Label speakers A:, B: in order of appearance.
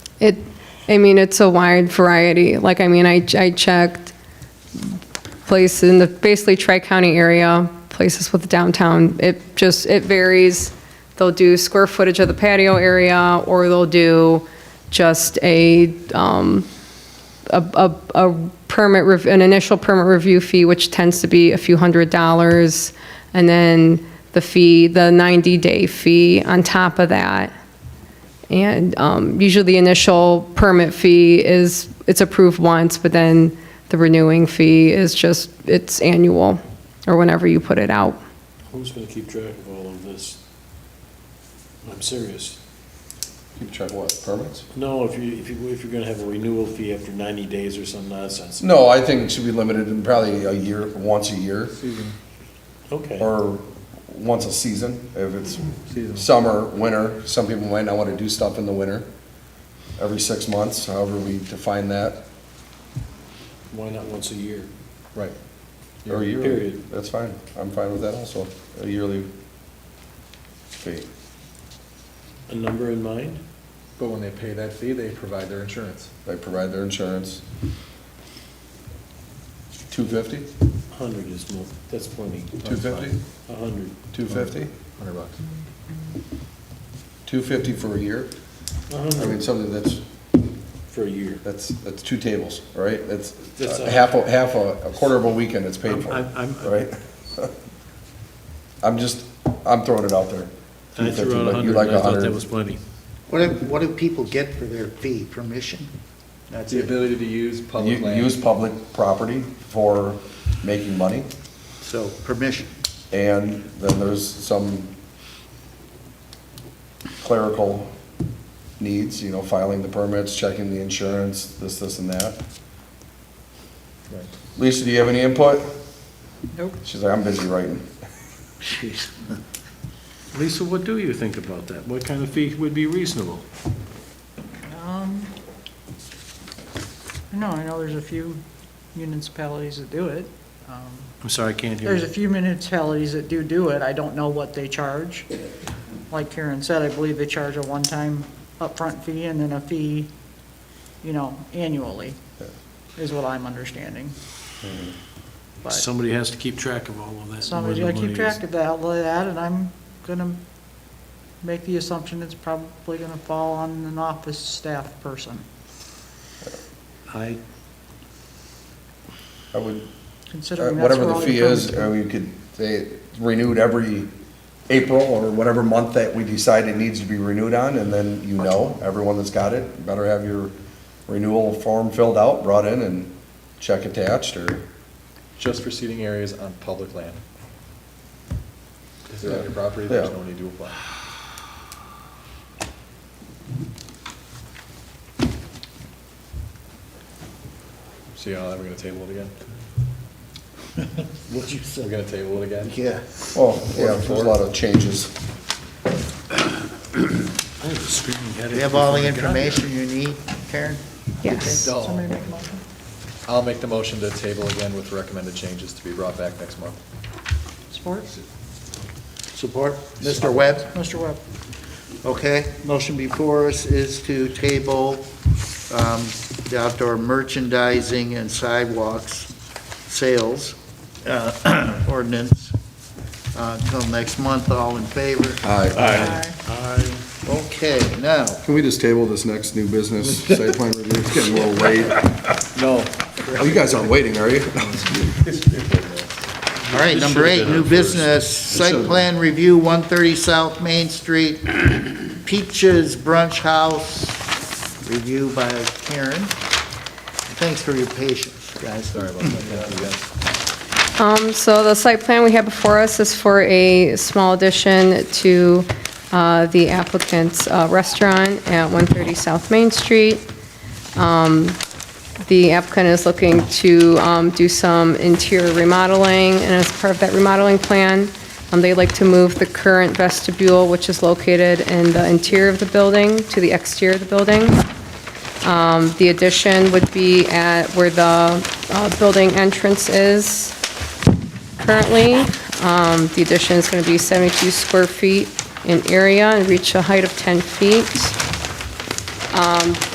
A: It, I mean, it's a wide variety. Like, I mean, I, I checked places in the basically tri-county area, places with downtown. It just, it varies. They'll do square footage of the patio area, or they'll do just a, um, a, a, a permit, rev- an initial permit review fee, which tends to be a few hundred dollars, and then the fee, the 90-day fee on top of that. And um, usually the initial permit fee is, it's approved once, but then the renewing fee is just, it's annual, or whenever you put it out.
B: Who's gonna keep track of all of this? I'm serious.
C: Keep track of what, permits?
B: No, if you, if you, if you're gonna have a renewal fee after ninety days or some nonsense.
C: No, I think it should be limited in probably a year, once a year,
B: Okay,
C: or once a season, if it's
D: Season.
C: summer, winter, some people might not want to do stuff in the winter, every six months, however we define that.
B: why not once a year?
C: Right. Or a yearly.
B: Period.
C: That's fine, I'm fine with that also, a yearly fee.
B: A number in mind?
D: But when they pay that fee, they provide their insurance.
C: They provide their insurance. Two fifty?
B: A hundred is more, that's plenty.
C: Two fifty?
B: A hundred.
C: Two fifty?
D: Hundred bucks.
C: Two fifty for a year?
B: A
C: I mean,
B: hundred
C: something that's
B: for a year.
C: That's, that's two tables, all right? That's
B: That's
C: uh,
B: a-
C: half, a half a, a quarter of a weekend it's paid for,
B: I'm- I'm-
C: all right? I'm just, I'm throwing it out there.
B: I threw out
C: 250,
B: a
C: but you
B: hundred,
C: like
B: and I thought
C: 100.
B: that was plenty.
E: What do, what do people get for their fee? Permission? That's
D: The
E: it.
D: ability to use public
C: U-
D: land.
C: Use public property for making money,
E: So permission.
C: and then there's some clerical needs, you know, filing the permits, checking the insurance, this, this, and that.
D: Right.
C: Lisa, do you have any input?
E: Nope.
C: She's like, I'm busy writing.
E: Jeez.
B: Lisa, what do you think about that? What kind of fee would be reasonable?
F: Um, No, I know there's a few municipalities that do it. Um,
B: I'm sorry, I can't hear
F: There's a
B: you.
F: few municipalities that do do it. I don't know what they charge. Like Karen said, I believe they charge a one-time upfront fee and then a fee, you know, annually, is what I'm understanding.
C: Mm-hmm.
F: But
B: Somebody has to keep track of all of that. and
F: somebody's
B: where
F: gotta
B: the
F: keep
B: money
F: track
B: is.
F: of that, all of that, and I'm gonna make the assumption it's probably gonna fall on an office staff person.
B: I,
C: I would Uh,
F: Considering that's
C: Whatever
F: where
C: the
F: all your
C: fee is, uh,
F: permits
C: I
F: go.
C: mean, you could say renewed every April or whatever month that we decide it needs to be renewed on, and then you know, everyone that's got it, better have your renewal form filled out, brought in and check attached or,
D: Just for seating areas on public land. If they're on your property, there's
C: Yeah.
D: no need to apply. See how we're gonna table it again?
B: what you
D: We're gonna table it again?
E: Yeah.
C: oh, yeah, there's a lot of changes.
B: I have a screaming headache.
E: Do you have all the
B: before I got here.
E: information you need, Karen?
A: Yes.
D: Dull.
F: Somebody make a motion?
D: I'll make the motion to table again with recommended changes to be brought back next month.
F: Support?
E: Support. Mr. Webb?
F: Mr. Webb?
E: Okay. Motion before us is to table um, the outdoor merchandising and sidewalks sales uh, ordinance uh, until next month. All in favor?
F: Aye.
E: Okay, now,
C: Can we just table this next new business site plan review? It's getting a little late.
D: No.
C: Oh, you guys aren't waiting, are you?
E: All right, number eight, new business, site plan review, 130 South Main Street, Peaches Brunch House, review by Karen. Thanks for your patience, guys.
D: Sorry about that. Thank you, guys.
A: Um, so the site plan we have before us is for a small addition to, uh, the applicant's uh, restaurant at 130 South Main Street. Um, The applicant is looking to, um, do some interior remodeling, and as part of that remodeling plan, um, they'd like to move the current vestibule, which is located in the interior of the building, to the exterior of the building. Um, the addition would be at where the, uh, building entrance is currently. Um, The addition is going to be 72 square feet in area and reach a height of 10 feet.